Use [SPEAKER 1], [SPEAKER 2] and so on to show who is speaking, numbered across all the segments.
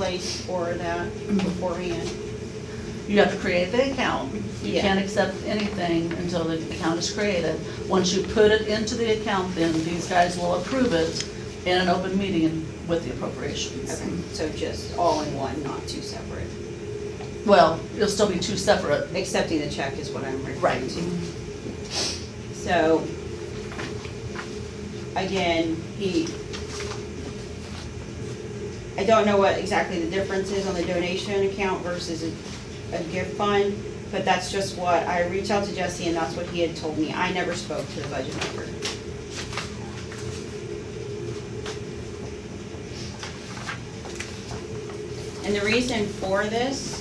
[SPEAKER 1] place for that beforehand.
[SPEAKER 2] You have to create the account. You
[SPEAKER 1] Yeah.
[SPEAKER 2] can't accept anything until the account is created. Once you put it into the account, then these guys will approve it in an open meeting with the appropriations.
[SPEAKER 1] Okay, so just all in one, not two separate.
[SPEAKER 2] Well, it'll still be two separate.
[SPEAKER 1] Accepting the check is what I'm referring
[SPEAKER 2] Right.
[SPEAKER 1] to. So, again, he, I don't know what exactly the difference is on the donation account versus a, a gift fund, but that's just what, I reached out to Jesse and that's what he had told me. I never spoke to the budget member. And the reason for this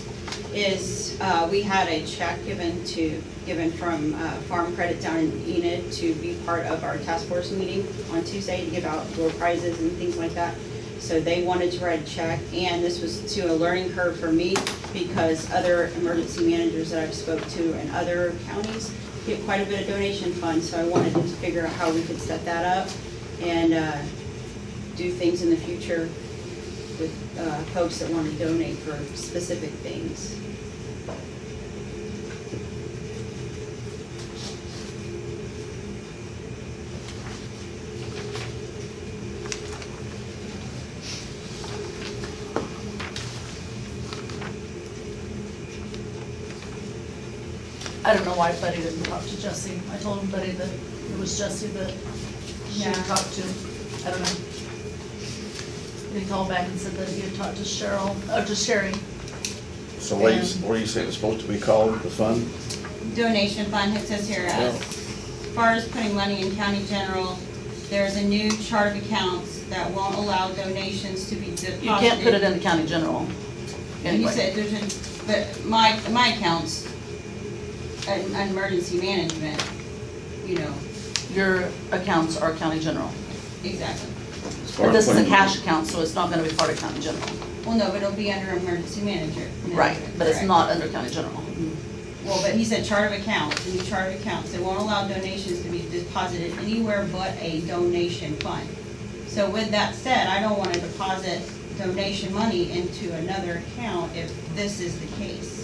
[SPEAKER 1] is uh, we had a check given to, given from uh, Farm Credit down in Enid to be part of our task force meeting on Tuesday to give out door prizes and things like that. So they wanted to write a check, and this was to a learning curve for me because other emergency managers that I've spoke to in other counties get quite a bit of donation funds, so I wanted to figure out how we could set that up and uh, do things in the future with uh, folks that want to donate for specific things.
[SPEAKER 2] I don't know why Buddy didn't talk to Jesse. I told him Buddy that it was Jesse that she
[SPEAKER 1] Yeah.
[SPEAKER 2] had talked to. I don't know. And he called back and said that he had talked to Cheryl, or to Sherry.
[SPEAKER 3] So what do you, what do you say it's supposed to be called, the fund?
[SPEAKER 1] Donation fund, it says here,
[SPEAKER 3] Yeah.
[SPEAKER 1] as far as putting money in county general, there's a new chart of accounts that won't allow donations to be deposited.
[SPEAKER 2] You can't put it in the county general.
[SPEAKER 1] And you
[SPEAKER 2] anyway.
[SPEAKER 1] said there's a, but my, my account's an an emergency management, you know,
[SPEAKER 2] Your accounts are county general.
[SPEAKER 1] exactly.
[SPEAKER 2] But this is a cash account, so it's not gonna be part of county general.
[SPEAKER 1] Well, no, but it'll be under emergency manager.
[SPEAKER 2] Right, but it's
[SPEAKER 1] Correct.
[SPEAKER 2] not under county general.
[SPEAKER 1] Well, but he said chart of accounts, a new chart of accounts, they won't allow donations to be deposited anywhere but a donation fund. So with that said, I don't wanna deposit donation money into another account if this is the case.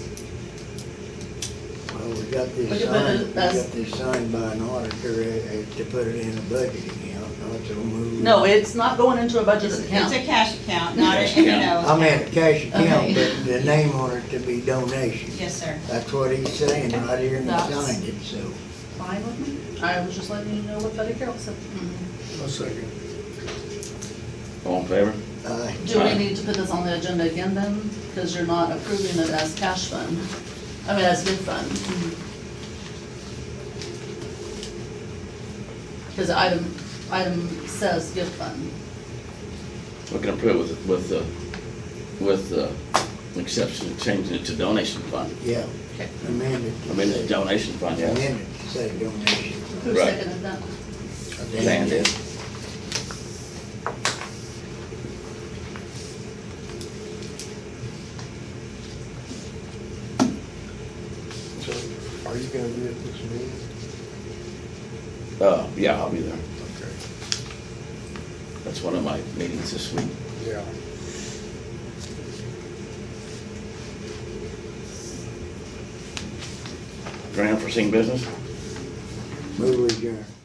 [SPEAKER 4] Well, we got
[SPEAKER 2] But
[SPEAKER 4] this
[SPEAKER 2] you put it
[SPEAKER 4] signed, we got
[SPEAKER 2] as-
[SPEAKER 4] this signed by an auditor uh, uh, to put it in a budget account, not to move.
[SPEAKER 2] No, it's not going into a budget
[SPEAKER 1] It's a
[SPEAKER 2] account.
[SPEAKER 1] cash account, not a,
[SPEAKER 3] Cash
[SPEAKER 1] you
[SPEAKER 3] account.
[SPEAKER 4] I
[SPEAKER 1] know.
[SPEAKER 4] meant a cash account,
[SPEAKER 2] Okay.
[SPEAKER 4] but the name on it to be donation.
[SPEAKER 1] Yes, sir.
[SPEAKER 4] That's what he's saying right here and he
[SPEAKER 2] That's-
[SPEAKER 4] signed it, so.
[SPEAKER 2] Fine with me. I was just letting you know what Betty Carroll said.
[SPEAKER 5] A second.
[SPEAKER 3] All in favor?
[SPEAKER 4] uh,
[SPEAKER 2] Do we
[SPEAKER 3] Aye.
[SPEAKER 2] need to put this on the agenda again then? Because you're not approving it as cash fund, I mean, as gift fund. Because item, item says gift fund.
[SPEAKER 3] We can approve with, with, the- with the exception of changing it to donation fund.
[SPEAKER 4] Yeah, amended. to
[SPEAKER 3] I mean,
[SPEAKER 4] say-
[SPEAKER 3] the donation fund, yeah.
[SPEAKER 4] Amended to say donation.
[SPEAKER 2] Who
[SPEAKER 3] Right.
[SPEAKER 2] seconded that?
[SPEAKER 3] Dan did.
[SPEAKER 5] So are you gonna be at this meeting?
[SPEAKER 3] Uh, yeah, I'll be there.
[SPEAKER 5] Okay.
[SPEAKER 3] That's one of my meetings this week.
[SPEAKER 5] Yeah.
[SPEAKER 3] Grant for seeing business?
[SPEAKER 4] Move adjourned.